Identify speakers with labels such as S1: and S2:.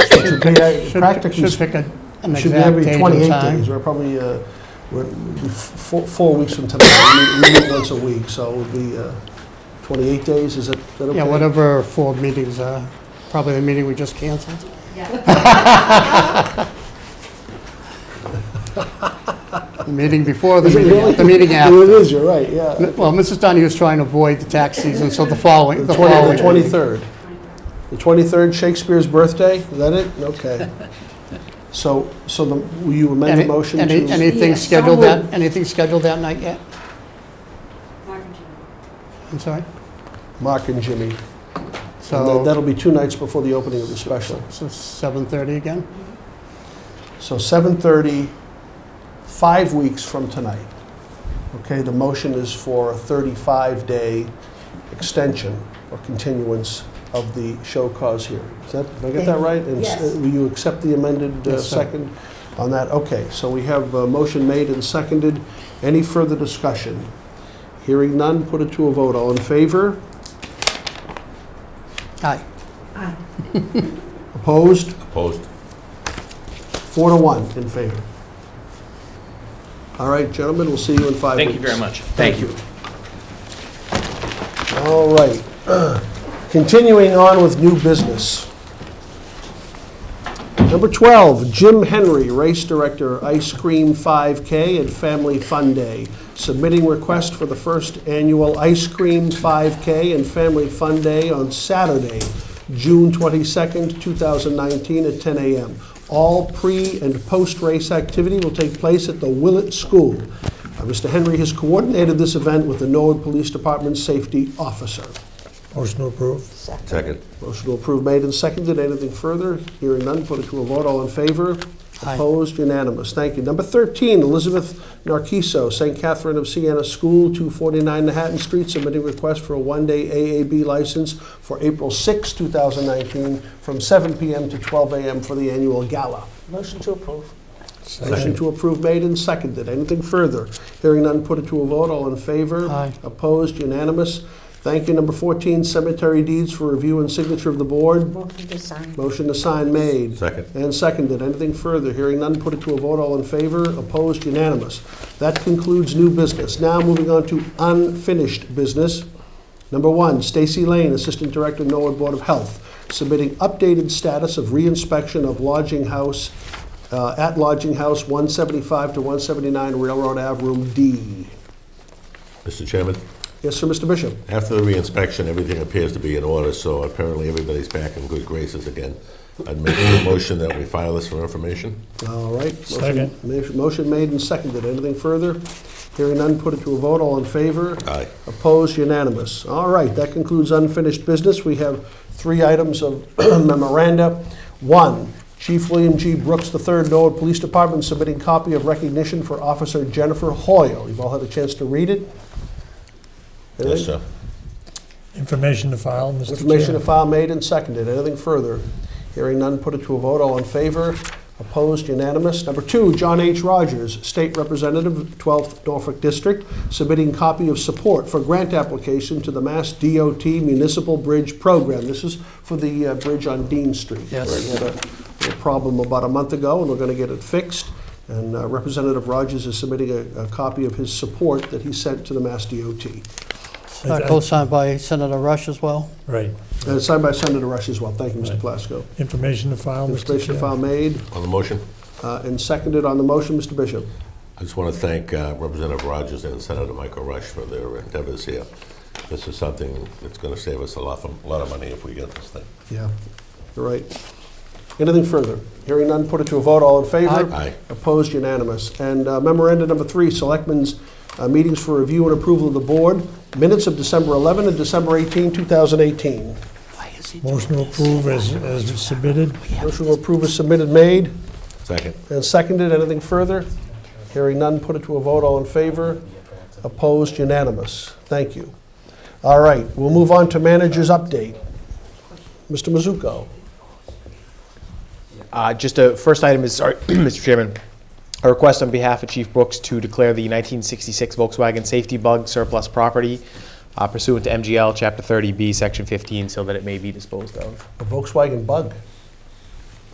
S1: should be, uh,
S2: Should-
S1: practically,
S2: Should pick a- an
S1: should be
S2: exact
S1: every
S2: date and
S1: 28
S2: time.
S1: days. We're probably, uh, we're, we'd be f- four, four weeks from today. We meet- we meet once a week, so it would be uh, 28 days, is that, that okay?
S2: Yeah, whatever four meetings are, probably the meeting we just canceled.
S3: Yeah,
S2: The meeting before, the
S1: Is it really?
S2: meeting, the meeting
S1: Well, It
S2: after.
S1: is, you're right, yeah.
S2: Well, Mrs. Donahue is trying to avoid the tax season, so the following,
S1: The
S2: the
S1: 20
S2: following.
S1: the 23rd. The 23rd, Shakespeare's birthday, is that it? Okay. So, so the, will you amend the
S2: Any-
S1: motion to?
S2: any- Anything
S3: Yeah, so
S2: scheduled that,
S3: moved.
S2: anything scheduled that night yet?
S3: Mark and Jim.
S2: I'm sorry?
S1: Mark and Jimmy. And that-
S2: So,
S1: that'll be two nights before the opening of the special.
S2: so 7:30 again?
S1: So 7:30, five weeks from tonight. Okay, the motion is for a 35-day extension or continuance of the show cause hearing. Is that, did I get that right? And s-
S3: Yes.
S1: Will you accept the amended uh,
S2: Yes, sir.
S1: second on that? Okay, so we have a motion made and seconded. Any further discussion? Hearing none, put it to a vote. All in favor?
S2: Aye.
S1: Ah,
S3: Aye.
S1: Opposed?
S4: Opposed.
S1: Four to one in favor. All right, gentlemen, we'll see you in five weeks.
S5: Thank you very much. Thank you.
S1: All right. Continuing on with new business. Number 12, Jim Henry, Race Director, Ice Cream 5K and Family Fun Day, submitting request for the first annual Ice Cream 5K and Family Fun Day on Saturday, June 22nd, 2019, at 10 a.m. All pre- and post-race activity will take place at the Willett School. Uh, Mr. Henry has coordinated this event with the Norwood Police Department Safety Officer.
S6: Motion to approve.
S4: Second.
S1: Motion to approve made and seconded. Anything further? Hearing none, put it to a vote. All in favor?
S2: Aye.
S1: Opposed? Unanimous. Thank you. Number 13, Elizabeth Narciso, St. Catherine of Siena School, 249 Manhattan Street, submitting request for a one-day AAB license for April 6, 2019, from 7 p.m. to 12 a.m. for the annual gala.
S7: Motion to approve.
S1: Motion to approve made and seconded. Anything further? Hearing none, put it to a vote. All in favor?
S2: Aye.
S1: Opposed? Unanimous. Thank you. Number 14, cemetery deeds for review and signature of the board.
S7: Motion to sign.
S1: Motion to sign made.
S4: Second.
S1: And seconded. Anything further? Hearing none, put it to a vote. All in favor? Opposed? Unanimous. That concludes new business. Now moving on to unfinished business. Number one, Stacy Lane, Assistant Director, Norwood Board of Health, submitting updated status of reinspection of lodging house, uh, at lodging house 175 to 179 Railroad Ave, Room D.
S4: Mr. Chairman,
S1: Yes, sir, Mr. Bishop?
S4: after the reinspection, everything appears to be in order, so apparently everybody's back in good graces again. I'd make a motion that we file this for information.
S1: All right. Motion-
S6: Second.
S1: ma- Motion made and seconded. Anything further? Hearing none, put it to a vote. All in favor?
S4: Aye.
S1: Opposed, unanimous. All right, that concludes unfinished business. We have three items of memoranda. One, Chief William G. Brooks III, Norwood Police Department, submitting copy of recognition for Officer Jennifer Hoyle. You've all had a chance to read it?
S4: Yes, sir.
S6: Information to file, Mr. Chair.
S1: Information to file made and seconded. Anything further? Hearing none, put it to a vote. All in favor? Opposed? Unanimous. Number two, John H. Rogers, State Representative, 12th Norfolk District, submitting copy of support for grant application to the Mass DOT Municipal Bridge Program. This is for the uh, bridge on Dean Street.
S2: Yes.
S1: We had a a problem about a month ago, and we're going to get it fixed. And uh, Representative Rogers is submitting a a copy of his support that he sent to the Mass DOT.
S6: I- I-
S2: Uh, Co-signed by Senator Rush as well?
S6: Right.
S1: And it's signed by Senator Rush as well. Thank you, Mr.
S6: Right.
S1: Plasko.
S6: Information to file, Mr.
S1: Installation
S6: Chair.
S1: file made
S4: On the motion,
S1: uh, and seconded on the motion, Mr. Bishop.
S4: I just want to thank uh, Representative Rogers and Senator Michael Rush for their endeavors here. This is something that's going to save us a lot, of- a lot of money if we get this thing.
S1: Yeah. You're right. Anything further? Hearing none, put it to a vote. All in favor?
S4: Aye. Aye.
S1: Opposed, unanimous. And uh, memoranda number three, Selectmen's uh, meetings for review and approval of the board, minutes of December 11 and December 18, 2018.
S6: Motion to approve as, as submitted.
S1: Motion to approve is submitted, made
S4: Second.
S1: and seconded. Anything further? Hearing none, put it to a vote. All in favor? Opposed, unanimous. Thank you. All right, we'll move on to manager's update. Mr. Mizuko.
S8: Uh, Just a, first item is, sorry, Mr. Chairman, a request on behalf of Chief Brooks to declare the 1966 Volkswagen safety bug surplus property uh, pursuant to MGL Chapter 30B, Section 15, so that it may be disposed of.
S1: A Volkswagen Bug.